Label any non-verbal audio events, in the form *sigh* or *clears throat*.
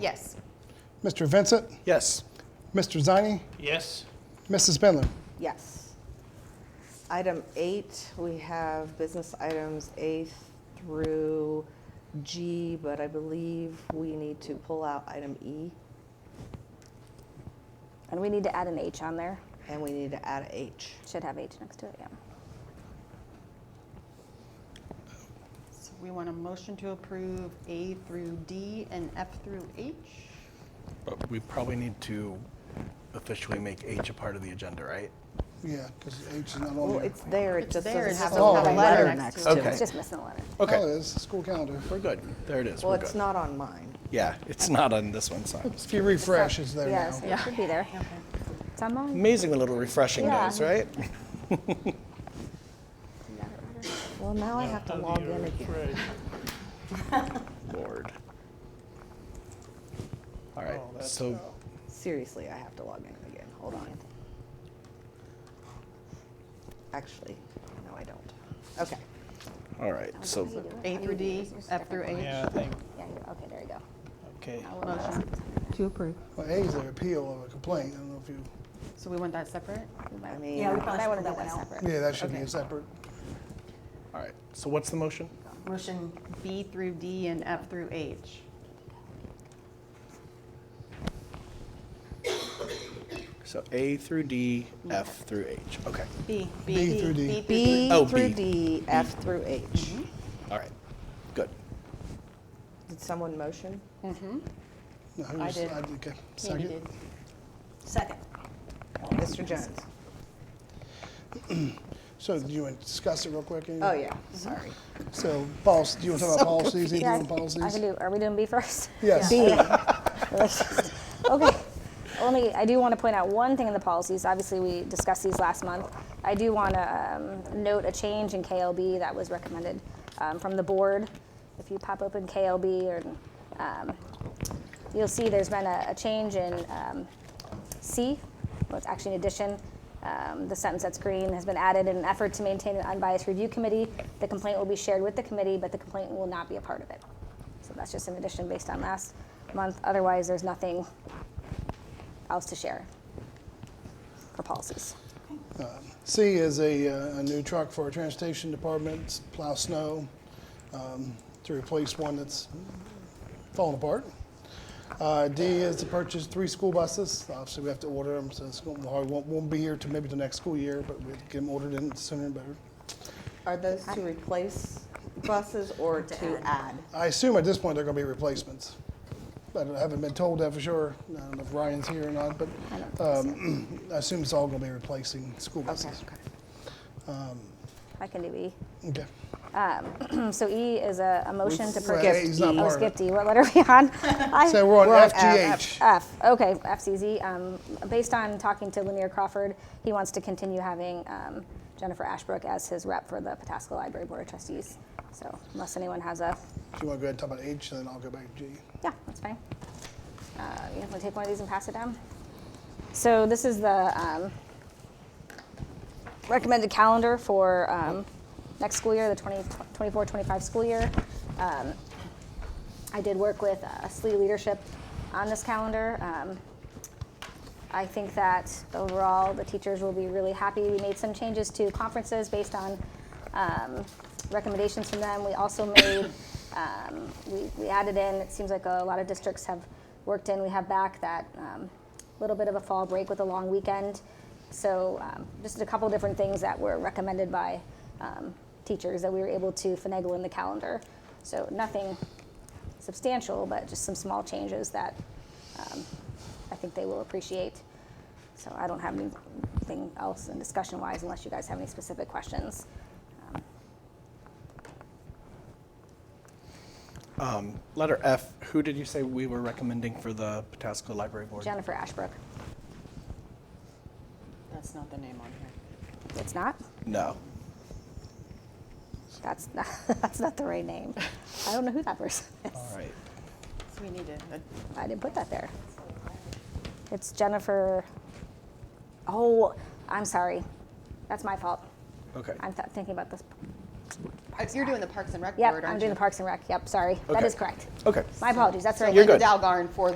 Yes. Mr. Vincent, Yes. Mr. Zani, Yes. Mrs. Bendler. Yes. Item eight, we have business items A through G, but I believe we need to pull out item E, And we need to add an H on there. and we need to add H. Should have H next to it, yeah. So we want a motion to approve A through D and F through H. But we probably need to officially make H a part of the agenda, right? Yeah, because H is not Well, on here. it's there, it It's just there, it doesn't just have doesn't a letter next to it. Okay. It's just missing a letter. Oh, Okay, it is, school calendar. we're good. There it is. Well, We're it's good. not on mine. Yeah, it's not on this one, so. If you refresh, it's there Yes, now. it should be there. It's on mine. Amazing what a little refreshing Yeah. does, right? Well, now I have to log in again. Lord. All right, so Seriously, I have to log in again. Hold on. Actually, no, I don't. Okay. all right, so A through D, F through H. *laughs* Yeah, I think, Yeah, you're- okay, there you go. okay. Motion. To approve. Well, A is the appeal of a complaint. I don't know if you, So we want that separate? I mean, Yeah, we probably Might should wanna pull that do one out. separate. yeah, that should be a Okay. separate. all right. So what's the motion? Motion B through D and F through H. So A through D, F through H. Okay. B. B through D. B Oh, through B. D, F through H. All right. Good. Did someone motion? No, who I was- did. okay. Katie Second. did. Second. Mr. Jones? So do you want to discuss it real quick? Amy? Oh, yeah, sorry. So, policy, do you want to talk about policies? Either Yeah, I one can- I can policies? do, are we doing B first? *laughs* Yes. B. *laughs* Okay. Only, I do want to point out one thing in the policies. Obviously, we discussed these last month. I do want to um, note a change in KLB that was recommended um, from the board. If you pop open KLB, or, um, you'll see there's been a a change in um, C, well, it's actually an addition. Um, The sentence that's green has been added in an effort to maintain an unbiased review committee. The complaint will be shared with the committee, but the complaint will not be a part of it. So that's just an addition based on last month. Otherwise, there's nothing else to share for policies. C is a, uh, a new truck for our transportation department, s- plow snow, um, to replace one that's falling apart. Uh, D is to purchase three school buses. Obviously, we have to order them, so it's going, won't, won't be here till maybe the next school year, but we get them ordered in sooner and better. Are those to replace buses or to add? I assume at this point they're going to be replacements. But I haven't been told that for sure. I don't know if Ryan's here or not, but um, *clears throat* I assume it's all going to be replacing school buses. I can do E. *clears throat* Okay. So E is a a motion to Well, purchase. he's not Oh, part of it. skip D. What letter are we *laughs* on? I- So we're on We're on FGH. F, okay, FCZ. Um, based on talking to Lanier Crawford, he wants to continue having um, Jennifer Ashbrook as his rep for the Pataska Library Board of Trustees. So unless anyone has a, If you want to go ahead and talk about H, then I'll go back to G. yeah, that's fine. Uh, you want to take one of these and pass it down? So this is the um, recommended calendar for um, next school year, the 24-25 school year. Um, I did work with uh, SLE leadership on this calendar. Um, I think that overall, the teachers will be really happy. We made some changes to conferences based on um, recommendations from them. We also made, um, we we added in, it seems like a lot of districts have worked in, we have back that um, little bit of a fall break with a long weekend. So um, just a couple different things that were recommended by um, teachers that we were able to finagle in the calendar. So nothing substantial, but just some small changes that um, I think they will appreciate. So I don't have anything else in discussion wise unless you guys have any specific questions. Um, Letter F, who did you say we were recommending for the Patasko Library Board? Jennifer Ashbrook, That's not the name on here. it's not? No. That's not, *laughs* that's not the right name. I don't know who that person is. All right. So we need to, I didn't put that there. It's Jennifer, oh, I'm sorry. That's my fault. Okay. I'm th- thinking about this Uh, You're doing the Parks and Rec Yep, Board, aren't you? I'm doing the Parks and Rec. Yep, sorry. That Okay. is correct. Okay. My apologies. That's right. Linda Dalgarn for the